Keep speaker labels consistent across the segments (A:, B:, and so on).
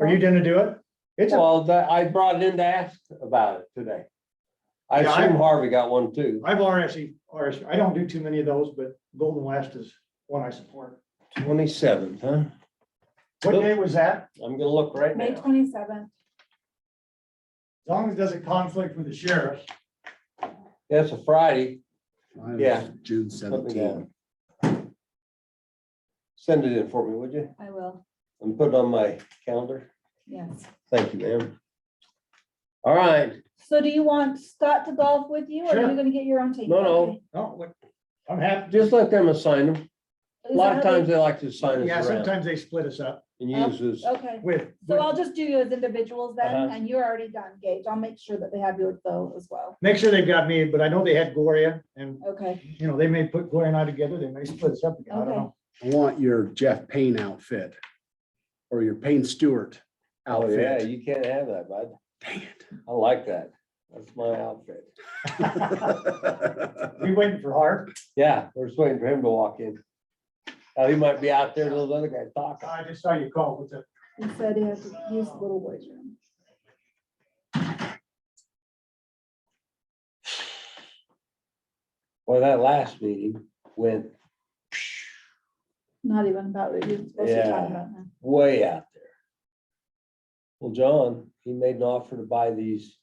A: Are you gonna do it? It's, a-
B: Well, that, I brought it in to ask about it today. I
A: Yeah, I-
B: assume Harvey got one too.
A: I've E, RSE, RS, I don't do too many of those, but Golden West is one I support.
B: Twenty-seventh, huh?
A: What day was that?
B: I'm gonna look right
C: May
B: now.
C: twenty-seventh,
A: As long as it doesn't conflict with the sheriff.
B: That's a Friday.
D: Mine was
B: Yeah.
D: June
B: Put me
D: seventeenth.
B: down. Send it in for me, would you?
C: I will,
B: And put it on my calendar.
C: yes.
B: Thank you, ma'am. All right,
C: So do you want Scott to golf with you, or are
A: Sure.
C: you gonna get your own team?
B: No, no.
C: Okay.
A: No, what- I'm happy.
B: just let them assign them. A
C: Is
B: lot of
C: that how Oh,
B: times they like to assign
A: Yeah,
B: us around
A: sometimes they split us up
B: and use this.
C: they- Okay,
A: with.
C: so I'll just do you as individuals then,
B: Uh-huh.
C: and you're already done, Gage, I'll make sure that they have you though as well,
A: Make sure they've got me, but I know they had Gloria and,
C: okay?
A: you know, they may put Gloria and I together. They may split us up again. I don't know.
D: I want your Jeff Payne outfit or your Payne Stewart
B: Oh, yeah,
D: outfit.
B: you can't have that, bud.
D: Dang
B: I like that. That's my outfit.
D: it.
A: We waiting for Hart?
B: Yeah, we're just waiting for him to walk in. Oh, he might be out there, those other guys talking.
A: I just saw you call. What's up?
C: He said he has to use the little boy's room.
B: Well, that last meeting went
C: Not even about what you're supposed to
B: Yeah.
C: talk about now.
B: way out there. Well, John, he made an offer to buy these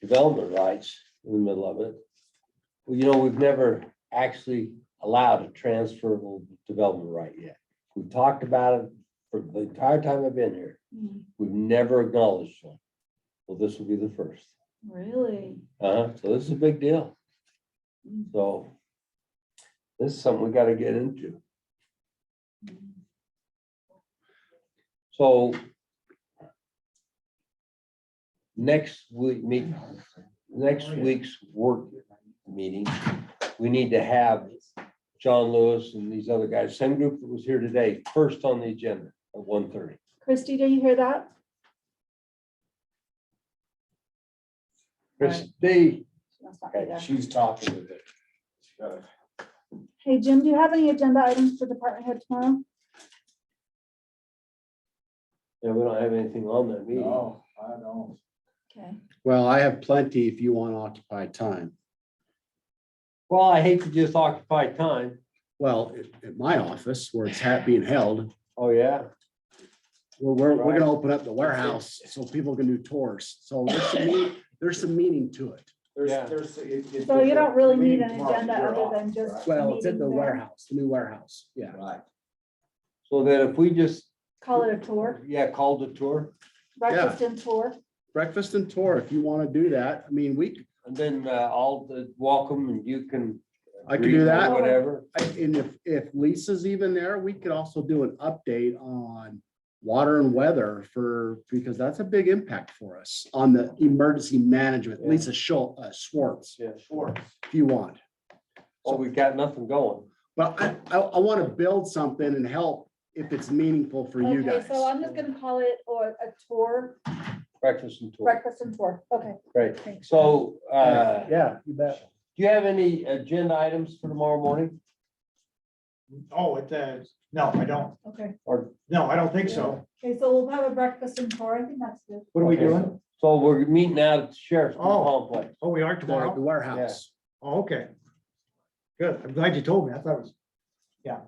B: development rights in the middle of it. Well, you know, we've never actually allowed a transferable development right yet. We've talked about it for the entire time I've been here.
C: Mm,
B: We've never acknowledged one. Well, this will be the first.
C: Really?
B: Uh, so this is a big deal.
C: Mm,
B: So this is something we gotta get into.
C: mm.
B: So next week, meet, next week's work meeting, we need to have John Lewis and these other guys, same group that was here today, first on the agenda at 1:30.
C: Christy, do you hear that?
B: Christie,
C: She must not be there.
E: She's talking with it.
C: Hey, Jim, do you have any agenda items for department head tomorrow?
B: yeah, we don't have anything on that meeting.
E: No, I don't.
C: Okay.
D: Well, I have plenty if you want to occupy time.
B: Well, I hate to just occupy time.
D: Well, at- at my office where it's ha- being held,
B: Oh, yeah.
D: we're, we're, we're
B: Right.
D: gonna open up the warehouse so people can do tours. So there's some, mean- there's some meaning to it.
B: Yeah.
E: There's, there's. it- it-
C: So you don't really
E: the
C: need
E: meeting
C: an
E: tomorrow,
C: agenda
E: you're
C: other
E: off,
C: than just-
D: Well, it's
C: Meeting
D: at the
C: there.
D: warehouse, the new warehouse. Yeah.
E: right? Right.
B: So that if we just,
C: Call it a tour,
B: yeah, called the tour
C: breakfast and tour.
D: Breakfast and tour, if you want to do that. I mean, we,
B: and then uh, I'll uh, welcome and you can.
D: I can do that.
B: Whatever.
D: I- And if, if Lisa's even there, we could also do an update on water and weather for, because that's a big impact for us on the emergency management.
B: Yeah.
D: Lisa Schul, uh, Schwartz,
B: Yeah, sure.
E: Schwartz.
D: if you want.
B: So we've got nothing going.
D: But I, I, I want to build something and help if it's meaningful for you
C: Okay,
D: guys.
C: so I'm just gonna call it or a tour,
B: Breakfast and tour.
C: breakfast and tour. Okay.
B: Great.
C: thanks.
B: So, uh, do
D: Yeah, you bet.
B: you have any agenda items for tomorrow morning?
A: Oh, it, uh, no, I don't.
C: Okay,
B: Or,
A: No, I don't think so.
C: okay, so we'll have a breakfast and tour. I think that's good.
A: What are we
B: Okay.
A: doing?
B: so we're meeting out at the Sheriff's
A: Oh.
B: Complex.
A: Oh, we are
D: The
A: tomorrow?
D: the warehouse.
A: Oh, okay. Good. I'm glad you told me. I thought it was, yeah.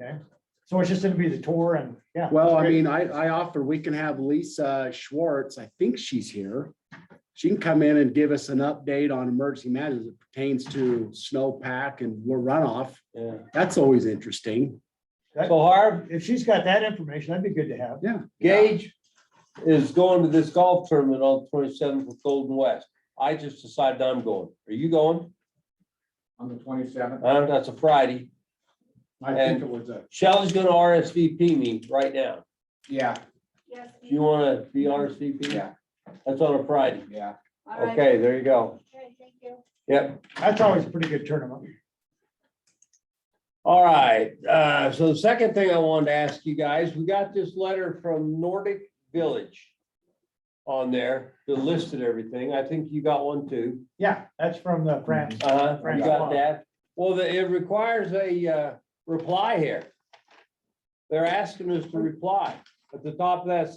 A: Okay. So it's just gonna be the tour and, yeah.
D: Well, I
A: great.
D: mean, I, I offer, we can have Lisa Schwartz, I think she's here. She can come in and give us an update on emergency matters that pertains to snowpack and runoff.
B: Yeah.
D: That's always interesting.
B: So Harv,
A: If she's got that information, that'd be good to have.
B: Gage is going to this golf tournament on twenty-seventh with Golden West. I just decided I'm going. Are you going?
E: On the twenty-seventh,
B: Uh, that's a Friday.
E: I think it was a,
B: Shelley's gonna RSVP me right now.
E: yeah,
C: Yes.
B: Do you wanna be RSVP?
E: yeah,
B: That's on a Friday.
E: yeah.
C: All right.
B: Okay, there you go.
C: Okay, thank you.
B: Yep.
A: That's always a pretty good tournament.
B: All right, uh, so the second thing I wanted to ask you guys, we got this letter from Nordic Village on there that listed everything. I think you got one too.
A: Yeah, that's from the France.
B: Uh, you got that? Well, the- it requires a, uh, reply here. They're asking us to reply at the top of that